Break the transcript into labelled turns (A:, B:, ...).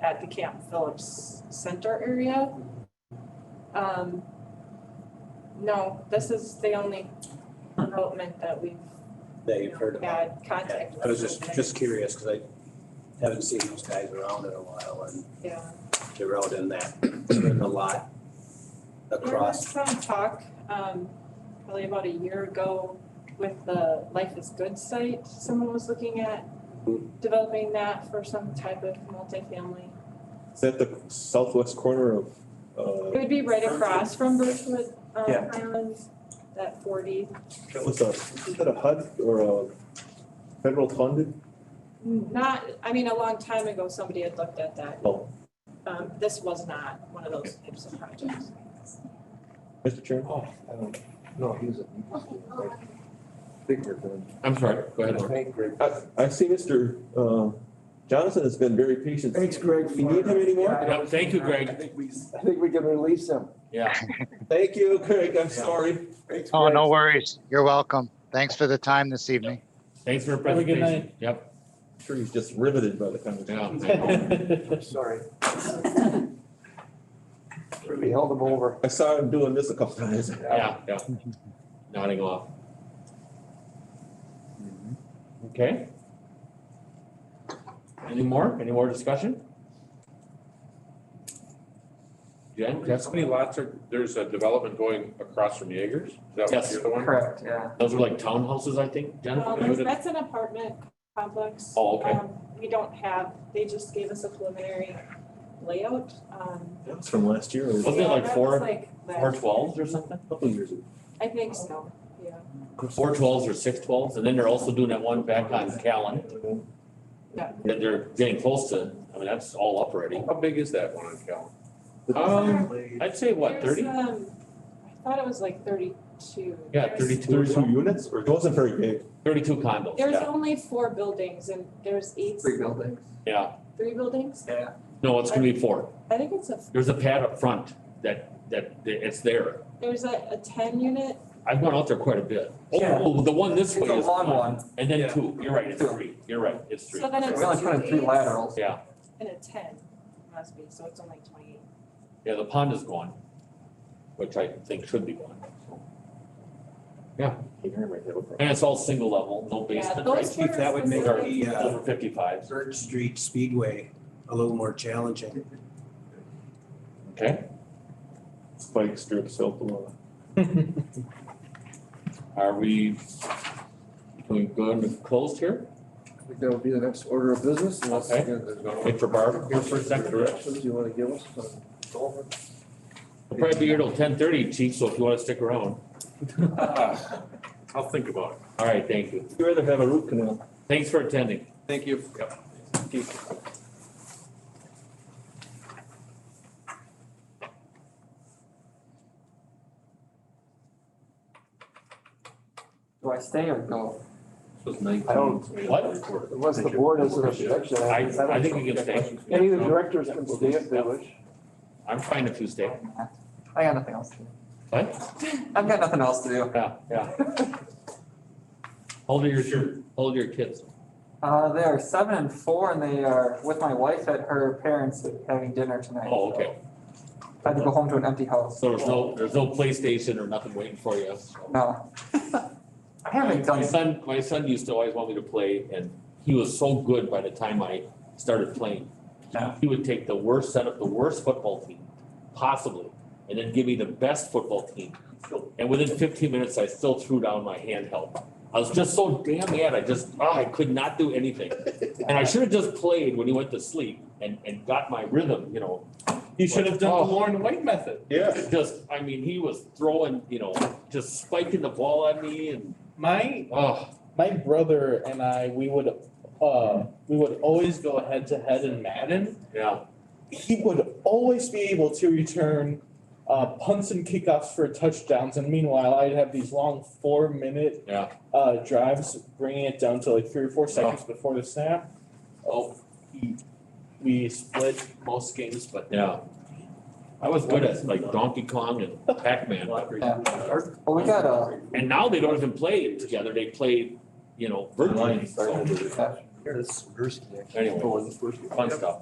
A: at the Camp Phillips Center area. Um, no, this is the only development that we've
B: that
A: you
B: you've
A: know,
B: heard about.
A: had contact with.
B: I was just,
A: Okay.
B: just curious, because I haven't seen those guys around in a while, and
A: Yeah.
B: they're out in that, in a lot across.
A: There was some talk, um, probably about a year ago with the Life is Good site. Someone was looking at developing that for some type of multifamily.
C: Is that the southwest corner of, uh,
A: It would be right across from Birchwood um,
C: Yeah.
A: Highlands, that forty.
C: that was a, was that a HUD or a federal funded?
A: Not, I mean, a long time ago, somebody had looked at that.
C: Oh.
A: Um, this was not one of those types of projects.
C: Mr. Chairman?
D: Oh, I don't, no, he was a. I think we're good.
E: I'm sorry, go ahead,
D: I
E: Laura.
D: think we're-
C: I, I see Mr. um, Johnson has been very patient.
D: Thanks, Greg.
C: We need him anymore?
E: Yeah, thank you, Greg.
D: I think we, I think we can release him.
E: Yeah,
C: Thank you, Craig, I'm sorry.
D: Thanks,
F: Oh,
D: Greg.
F: no worries. You're welcome. Thanks for the time this evening.
E: thanks for your
C: Have a good
E: presentation. Yep,
C: I'm Sure, he's just riveted by the conversation.
D: I'm Sorry. We held him over.
C: I saw him doing this a couple times.
E: yeah, yeah. Nodding off. Okay. Any more, any more discussion? Jen,
G: That's
E: Jessica?
G: many lots are, there's a development going across from Jaegers? Is that what
E: Yes.
G: you're the one?
H: Correct, yeah.
E: Those are like townhouses, I think, Jen?
A: Um, That's an apartment complex.
E: Oh, okay.
A: Um, We don't have, they just gave us a preliminary layout. um,
C: That was from last year, or a
E: Wasn't it
A: yeah,
E: like
A: that
E: four-
A: was like
E: Four
A: last-
E: twelves or something?
C: couple years ago.
A: I think so, yeah.
E: Four twelves or six twelves, and then they're also doing that one back on Callan.
A: Yeah.
E: That they're getting close to, I mean, that's all up already.
G: How big is that one on Cal?
E: Um, I'd say what,
A: There's,
E: thirty?
A: um, I thought it was like thirty-two.
E: Yeah,
A: There's-
E: 32.
C: Thirty-two units, or it wasn't very big.
E: Thirty-two condos,
A: There's
E: yeah,
A: only four buildings and there's eight,
H: Three buildings.
E: yeah.
A: three buildings?
H: Yeah.
E: No, it's gonna be four.
A: I think it's a,
E: There's a pad up front that, that, that- it's there.
A: there's a, a ten unit.
E: I've gone out there quite a bit.
H: Yeah.
E: Oh, the one this
H: It's
E: way
H: a
E: is
H: long
E: one,
H: one.
E: and then
G: Yeah.
E: two. You're right, it's
H: Two.
E: three. You're right, it's three.
A: So then it's
H: We only
A: two
H: put in three
A: eights
H: laterals.
E: Yeah,
A: And a ten must be, so it's only twenty-eight.
E: yeah, the pond is gone, which I think should be gone. so. Yeah, and it's all single level, no
A: Yeah,
E: basement,
A: those
E: right?
A: were
B: Chief, that would make
A: specific.
B: the, uh,
E: Over fifty-five,
B: Third Street Speedway a little more challenging.
E: okay?
C: Spike uh, strips help a lot.
E: Are we, can we go into closed here?
D: I think that'll be the next order of business. unless,
E: Okay.
D: again, there's no-
E: Wait for Barb here for a second.
D: Directions you wanna give us? um, over?
E: We'll probably be here till ten thirty, chief, so if you wanna stick around.
G: I'll think about it.
E: All right, thank you.
C: You rather have a root canal?
E: Thanks for attending.
G: Thank you.
H: Do I stay or go?
D: I don't,
E: What?
D: unless the board has an objection.
E: I,
D: don't-
E: I think we can stay.
D: Any of the directors can stay if they wish.
E: I'm fine if you stay.
H: I got nothing else to do.
E: What?
H: I've got nothing else to do.
E: Yeah, yeah. Hold your, shirt. hold your kids.
H: Uh, they are seven and four and they are with my wife at her parents having dinner tonight.
E: Oh, okay.
H: so I had to go home to an empty house.
E: So there's no, there's no PlayStation or nothing waiting for you.
H: No. I haven't
E: My
H: done,
E: son, my son used to always want me to play and he was so good by the time I started playing.
H: Yeah.
E: He would take the worst, set up the worst football team possibly, and then give me the best football team. And within fifteen minutes, I still threw down my handheld. I was just so damn mad, I just, ah, I could not do anything. And I should have just played when he went to sleep and, and got my rhythm, you know. Oh.
C: You
E: should have done the
C: Lauren White method. Yeah.
E: Just, I mean, he was throwing, you know, just spiking the ball at me and,
I: My
E: oh,
I: my brother and I, we would uh we would always go head to head in Madden.
E: yeah,
I: He would always be able to return uh punts and kickoffs for touchdowns, and meanwhile, I'd have these long four minute
E: Yeah.
I: uh drives, bringing it down to like three or four seconds before the snap. Oh, he we split most games, but
E: yeah. I was good at like Donkey Kong and Pac-Man.
H: well, we got a,
E: And now they don't even play together, they play, you know, virtually, so,
H: yeah.
D: Here, this is Gursky.
E: anyway, fun stuff.